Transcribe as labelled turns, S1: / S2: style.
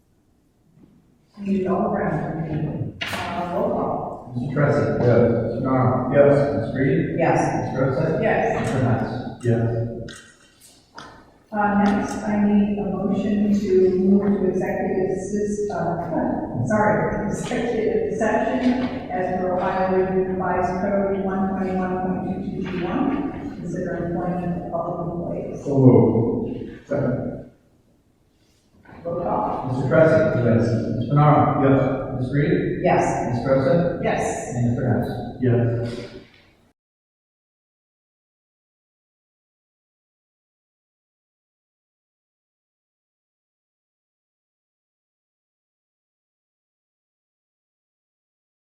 S1: You know, around the meeting. Uh, roll call.
S2: Mr. Tressi. Yes. Mr. Nara. Yes. Ms. Reed.
S1: Yes.
S2: Ms. Rosa.
S1: Yes.
S2: Mr. Hess. Yes.
S1: Uh, next, I need a motion to move to executive sys, uh, sorry, executive session as per Ohio Revised Code one twenty-one point two two two one, consider employment of public employees.
S2: So moved. Second.
S1: Roll call.
S2: Mr. Tressi. Yes. Mr. Nara. Yes. Ms. Reed.
S1: Yes.
S2: Ms. Rosa.
S1: Yes.
S2: And Mr. Hess. Yes.